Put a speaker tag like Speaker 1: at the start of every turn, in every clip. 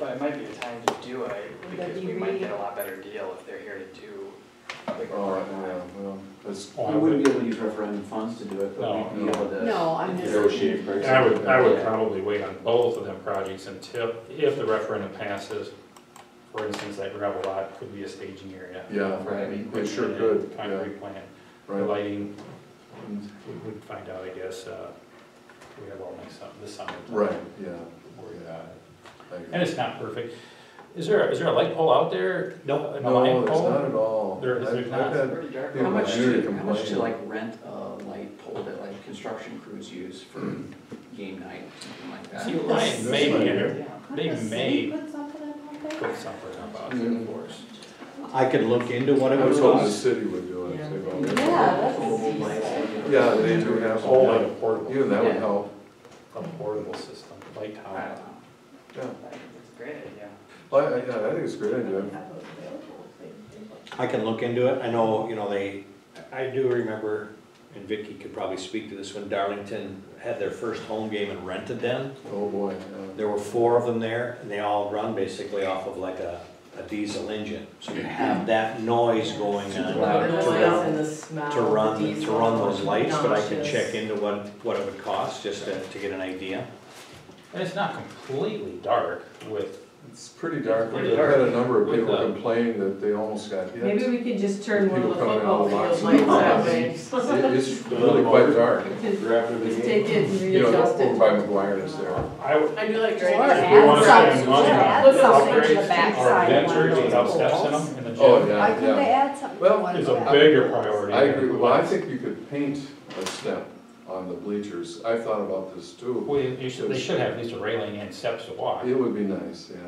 Speaker 1: it might be a time to do it,
Speaker 2: Would that
Speaker 1: because
Speaker 2: be
Speaker 1: we might
Speaker 2: reading?
Speaker 1: get a lot better deal if they're here to do a bigger
Speaker 3: Oh,
Speaker 1: program.
Speaker 3: yeah, well, that's,
Speaker 4: Oh, I
Speaker 3: we wouldn't be able to use referendum funds to do it,
Speaker 4: No,
Speaker 3: but we'd be able to.
Speaker 2: No, I'm just.
Speaker 3: Negotiate
Speaker 2: thinking-
Speaker 3: prices.
Speaker 4: And I would, I would
Speaker 1: Yeah.
Speaker 4: probably wait on both of them projects until, if the referendum passes. For instance, that gravel lot could be a staging area.
Speaker 3: Yeah,
Speaker 4: for heavy
Speaker 3: it sure
Speaker 4: equipment
Speaker 3: could,
Speaker 4: and Concrete plant, The
Speaker 3: Right,
Speaker 4: lighting,
Speaker 3: Mm,
Speaker 4: we would find out, I guess, uh, we have all next, sum- this summer. to
Speaker 3: right, yeah,
Speaker 4: worry about it.
Speaker 3: I agree.
Speaker 4: And it's not perfect. Is there, is there a light pole out there? No. An
Speaker 3: No,
Speaker 4: light
Speaker 3: there's not
Speaker 4: pole?
Speaker 3: at all.
Speaker 4: There is-
Speaker 3: I've-
Speaker 4: there's
Speaker 3: I've
Speaker 4: not.
Speaker 3: had-
Speaker 1: Pretty dark.
Speaker 3: Yeah,
Speaker 5: How much
Speaker 3: I hear you
Speaker 5: to, how much to
Speaker 3: complaining.
Speaker 5: like rent a light pole that like construction crews use for game night, something like
Speaker 4: See,
Speaker 5: that?
Speaker 4: Ryan,
Speaker 3: This
Speaker 4: maybe,
Speaker 3: might
Speaker 4: enter-
Speaker 2: Couldn't
Speaker 4: They
Speaker 2: the city
Speaker 4: may-
Speaker 2: Put something up out there?
Speaker 4: put something up out there
Speaker 3: Mm.
Speaker 4: for us.
Speaker 6: I could look into one
Speaker 3: I
Speaker 6: of
Speaker 3: was hoping the
Speaker 6: those.
Speaker 3: city would do it. they've already-
Speaker 2: Yeah, that's
Speaker 5: Old
Speaker 2: easy.
Speaker 5: lights, like-
Speaker 3: Yeah, they do have,
Speaker 4: Oh, like a
Speaker 3: some, yeah.
Speaker 4: portable,
Speaker 3: even that would
Speaker 5: Yeah.
Speaker 3: help,
Speaker 4: a portable system, light
Speaker 5: I
Speaker 4: tower.
Speaker 5: don't know.
Speaker 3: yeah.
Speaker 1: I think it's a great idea.
Speaker 3: I, I, yeah, I think it's a great
Speaker 2: Have
Speaker 3: idea.
Speaker 2: those available if they did want
Speaker 6: I can look into it. I know, you know, they, I do remember, and Vicky could probably speak to this, when Darlington had their first home game and rented them.
Speaker 3: Oh, boy, yeah.
Speaker 6: There were four of them there, and they all run basically off of like a, a diesel engine. So you have that noise going
Speaker 2: to.
Speaker 6: on.
Speaker 2: The noise and the smell.
Speaker 6: to run,
Speaker 2: the
Speaker 6: to run those
Speaker 2: diesel,
Speaker 6: lights, but I can
Speaker 2: noxious.
Speaker 6: check into what, what it would cost, just to, to get an idea.
Speaker 4: And it's not completely dark with,
Speaker 3: It's pretty dark, I've
Speaker 4: Pretty
Speaker 3: had a number of
Speaker 4: With
Speaker 3: people
Speaker 4: the-
Speaker 3: complain that they almost got hit.
Speaker 2: Maybe
Speaker 3: It-
Speaker 2: we could just turn one of the
Speaker 3: People coming
Speaker 2: football
Speaker 3: out of
Speaker 2: field
Speaker 3: lots
Speaker 2: lights
Speaker 3: of
Speaker 2: that
Speaker 3: doors.
Speaker 2: way.
Speaker 3: It's really quite dark.
Speaker 2: Just just take it and
Speaker 3: You know,
Speaker 2: readjust
Speaker 3: over
Speaker 2: it.
Speaker 3: by McGuire's there.
Speaker 4: I would.
Speaker 2: I do like
Speaker 4: We
Speaker 2: Greg.
Speaker 4: want to spend money
Speaker 2: Add
Speaker 4: on
Speaker 2: something to the
Speaker 4: upgrades or
Speaker 2: backside of one of
Speaker 4: adventures
Speaker 2: those
Speaker 4: without steps in
Speaker 2: poles.
Speaker 4: them in the
Speaker 3: Oh,
Speaker 4: gym.
Speaker 7: Why
Speaker 3: yeah,
Speaker 7: couldn't they
Speaker 3: yeah.
Speaker 7: add something? to
Speaker 3: Well,
Speaker 7: one of
Speaker 4: Is
Speaker 7: those?
Speaker 4: a bigger priority.
Speaker 3: I agree,
Speaker 4: than
Speaker 3: well, I
Speaker 4: lights.
Speaker 3: think you could paint a step on the bleachers, I thought about this too.
Speaker 4: We, you should, they should have at least a railing and steps to walk.
Speaker 3: It would be nice, yeah.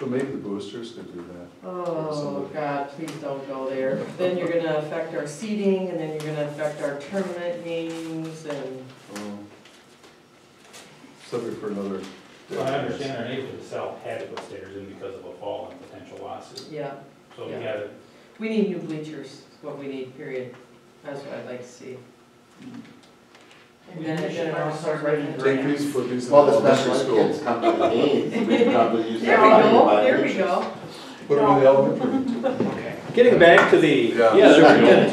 Speaker 3: But maybe the boosters could do that.
Speaker 2: Oh, God, please don't go there. Then you're gonna affect our seating, and then you're gonna affect our tournament games, and
Speaker 3: Oh. Subject for another day.
Speaker 4: Well, I understand our neighbor to sell had to put stairs in because of a fall and potential losses.
Speaker 2: yeah,
Speaker 4: So we
Speaker 2: Yeah.
Speaker 4: gotta,
Speaker 2: we need new bleachers, is what we need, period. That's what I'd like to see.
Speaker 1: We
Speaker 2: And then,
Speaker 1: should
Speaker 2: then
Speaker 1: probably
Speaker 2: also
Speaker 1: start writing
Speaker 2: grant-
Speaker 3: Take these, put these in
Speaker 8: Well, the special
Speaker 3: elementary
Speaker 8: ed
Speaker 3: school.
Speaker 8: kids come to the games, we probably use
Speaker 2: There
Speaker 8: that
Speaker 2: we
Speaker 8: money to
Speaker 2: go,
Speaker 8: buy
Speaker 2: there we
Speaker 8: pictures.
Speaker 2: go.
Speaker 3: Put them in the elementary.
Speaker 1: Okay.
Speaker 6: Getting back to the,
Speaker 3: Yeah.
Speaker 6: yeah,
Speaker 3: To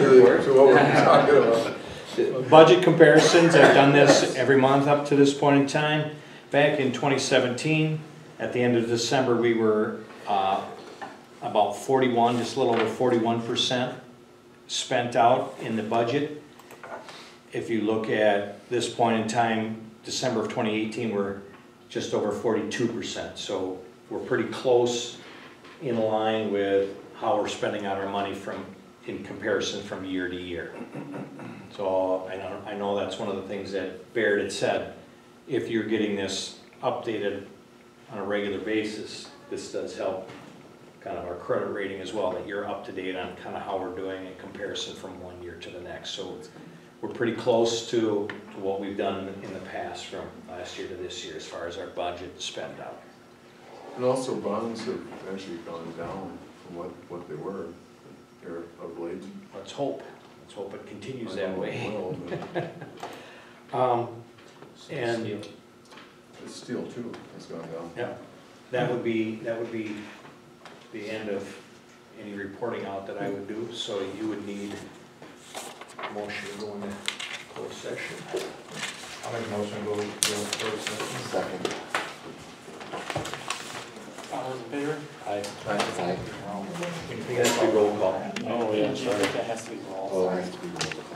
Speaker 3: the- to what we're talking about.
Speaker 6: there we go. budget comparisons, I've done this every month up to this point in time. Back in 2017, at the end of December, we were uh, about 41, just a little over 41% spent out in the budget. If you look at this point in time, December of 2018, we're just over 42%. So we're pretty close in line with how we're spending out our money from, in comparison from year to year. So I know, I know that's one of the things that Baird had said, if you're getting this updated on a regular basis, this does help kind of our credit rating as well, that you're up to date on kind of how we're doing in comparison from one year to the next. So we're pretty close to, to what we've done in the past from last year to this year as far as our budget spend out.
Speaker 3: And also bonds have actually gone down from what, what they were here of late.
Speaker 6: Let's hope, let's hope it continues
Speaker 3: I
Speaker 6: that
Speaker 3: know it
Speaker 6: way.
Speaker 3: will, but
Speaker 6: Um,
Speaker 4: so
Speaker 6: And-
Speaker 4: steel.
Speaker 3: it's Steel too, has gone down.
Speaker 6: Yeah, that would be, that would be the end of any reporting out that I would do, so you would need a motion to go into closed session.
Speaker 4: I'll make a motion to go, go first.
Speaker 8: Second.
Speaker 1: All those in favor?
Speaker 6: I,
Speaker 8: Aye.
Speaker 6: it has to be roll call.
Speaker 1: Oh, yeah, sorry. That has to be rolled.
Speaker 8: Oh, it has to be rolled.